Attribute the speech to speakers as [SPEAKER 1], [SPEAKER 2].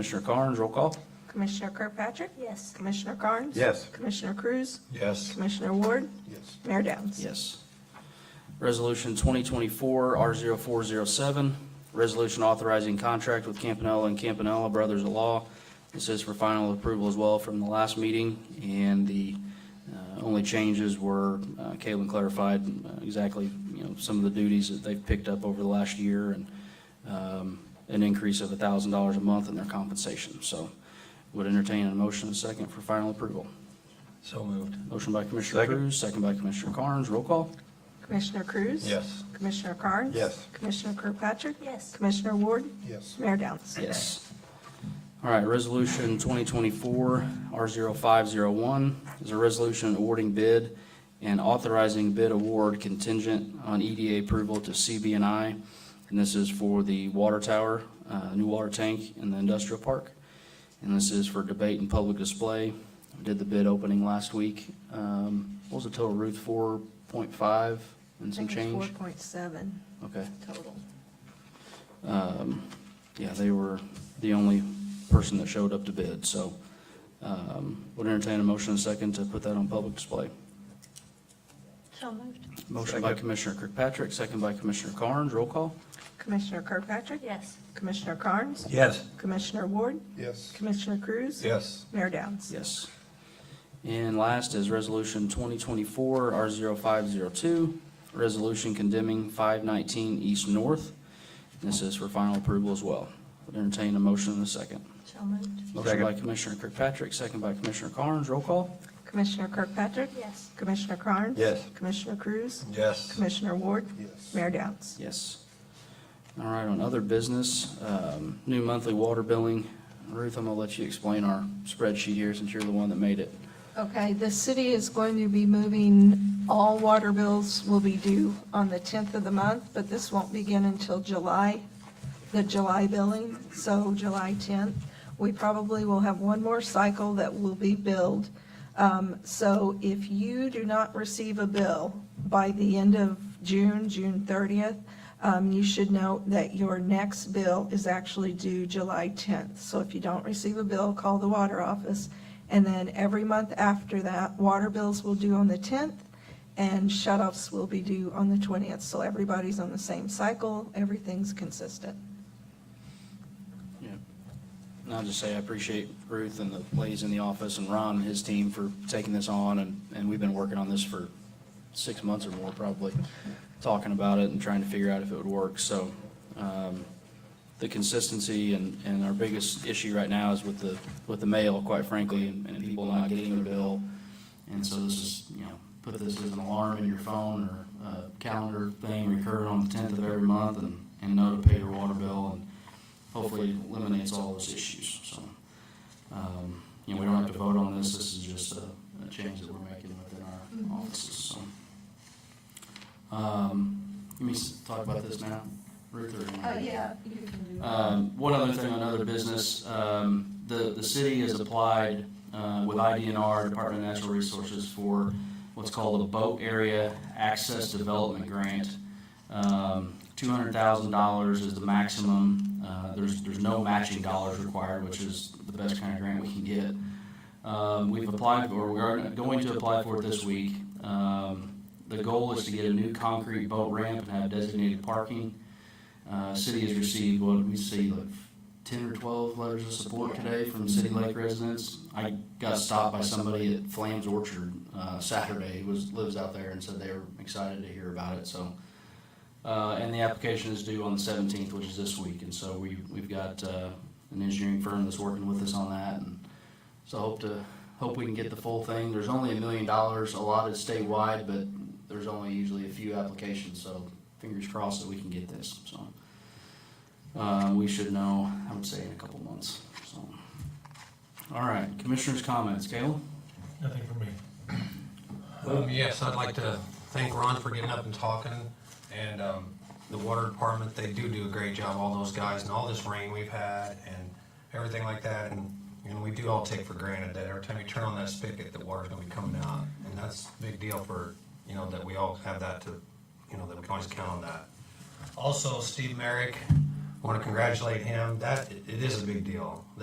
[SPEAKER 1] Commissioner Carnes, roll call.
[SPEAKER 2] Commissioner Kirkpatrick? Yes. Commissioner Carnes?
[SPEAKER 3] Yes.
[SPEAKER 2] Commissioner Cruz?
[SPEAKER 3] Yes.
[SPEAKER 2] Commissioner Ward?
[SPEAKER 3] Yes.
[SPEAKER 2] Mayor Downs?
[SPEAKER 1] Yes. Resolution 2024-R0407, resolution authorizing contract with Campanella and Campanella Brothers of Law. This is for final approval as well from the last meeting, and the uh, only changes were, uh, Caitlin clarified uh, exactly, you know, some of the duties that they've picked up over the last year, and um, an increase of $1,000 a month in their compensation. So would entertain a motion and a second for final approval.
[SPEAKER 3] So moved.
[SPEAKER 1] Motion by Commissioner
[SPEAKER 3] Second.
[SPEAKER 1] Cruz, second by Commissioner Carnes, roll call.
[SPEAKER 2] Commissioner Cruz?
[SPEAKER 3] Yes.
[SPEAKER 2] Commissioner Carnes?
[SPEAKER 3] Yes.
[SPEAKER 2] Commissioner Kirkpatrick? Yes. Commissioner Ward?
[SPEAKER 3] Yes.
[SPEAKER 2] Mayor Downs?
[SPEAKER 1] Yes. All right, Resolution 2024-R0501 is a resolution awarding bid and authorizing bid award contingent on EDA approval to CBNI, and this is for the water tower, uh, new water tank in the industrial park, and this is for debate and public display. We Did the bid opening last week. Um, What was the total, Ruth? 4.5 and some change?
[SPEAKER 2] Four point seven
[SPEAKER 1] Okay.
[SPEAKER 2] total.
[SPEAKER 1] Um, Yeah, they were the only person that showed up to bid, so um, would entertain a motion and a second to put that on public display.
[SPEAKER 4] So moved.
[SPEAKER 1] Motion by
[SPEAKER 3] Second.
[SPEAKER 1] Commissioner Kirkpatrick, second by Commissioner Carnes, roll call.
[SPEAKER 2] Commissioner Kirkpatrick?
[SPEAKER 4] Yes.
[SPEAKER 2] Commissioner Carnes?
[SPEAKER 3] Yes.
[SPEAKER 2] Commissioner Ward?
[SPEAKER 3] Yes.
[SPEAKER 2] Commissioner Cruz?
[SPEAKER 3] Yes.
[SPEAKER 2] Mayor Downs?
[SPEAKER 1] Yes. And last is Resolution 2024-R0502, resolution condemning 519 East North. This is for final approval as well. Would entertain a motion and a second.
[SPEAKER 4] So moved.
[SPEAKER 1] Motion
[SPEAKER 3] Second.
[SPEAKER 1] by Commissioner Kirkpatrick, second by Commissioner Carnes, roll call.
[SPEAKER 2] Commissioner Kirkpatrick?
[SPEAKER 4] Yes.
[SPEAKER 2] Commissioner Carnes?
[SPEAKER 3] Yes.
[SPEAKER 2] Commissioner Cruz?
[SPEAKER 3] Yes.
[SPEAKER 2] Commissioner Ward?
[SPEAKER 3] Yes.
[SPEAKER 2] Mayor Downs?
[SPEAKER 1] Yes. All right, on other business, um, new monthly water billing. Ruth, I'm gonna let you explain our spreadsheet here since you're the one that made it.
[SPEAKER 2] Okay, the city is going to be moving, all water bills will be due on the 10th of the month, but this won't begin until July, the July billing, so July 10th. We probably will have one more cycle that will be billed. Um, So if you do not receive a bill by the end of June, June 30th, um, you should note that your next bill is actually due July 10th. So if you don't receive a bill, call the water office. And then every month after that, water bills will due on the 10th and shut-offs will be due on the 20th. So everybody's on the same cycle, everything's consistent.
[SPEAKER 1] And I'll just say I appreciate Ruth and the ladies in the office and Ron and his team for taking this on, and, and we've been working on this for six months or more probably, talking about it and trying to figure out if it would work, so, um, the consistency and, and our biggest issue right now is with the, with the mail, quite frankly, and and people not getting their bill. And so this is, you know, put this as an alarm in your phone or a calendar thing, recur on the tenth of every month and, and know to pay your water bill and hopefully eliminates all those issues, so. um, You know, we don't have to vote on this, this is just a, a change that we're making within our offices, so. Um, Let me s- talk about this now, Ruth or? Ann?
[SPEAKER 2] Uh,
[SPEAKER 1] Um, One other thing on other business, um, the, the city has applied uh, with IDNR, Department of Natural Resources, for what's called a boat area access development grant. Um, $200,000 is the maximum. Uh, There's, there's no matching dollars required, which is the best kind of grant we can get. Um, We've applied, or we are going to apply for it this week. Um, The goal is to get a new concrete boat ramp and have designated parking. Uh, city has received, what, we see like ten or twelve letters of support today from City Lake residents. I got stopped by somebody at Flames Orchard, uh, Saturday, who was, lives out there and said they were excited to hear about it, so. Uh, and the application is due on the seventeenth, which is this week, and so we, we've got, uh, an engineering firm that's working with us on that, and so I hope to, hope we can get the full thing. There's only a million dollars allotted statewide, but there's only usually a few applications, so fingers crossed that we can get this, so. Uh, we should know, I would say in a couple months, so. All right, commissioners' comments, Caleb?
[SPEAKER 5] Nothing for me. Um, yes, I'd like to thank Ron for getting up and talking, and, um, the water department, they do do a great job, all those guys, and all this rain we've had, and everything like that, and, you know, we do all take for granted that every time you turn on that spigot, the water's gonna be coming out, and that's a big deal for, you know, that we all have that to, you know, that we can always count on that. Also, Steve Merrick, wanna congratulate him, that, it is a big deal,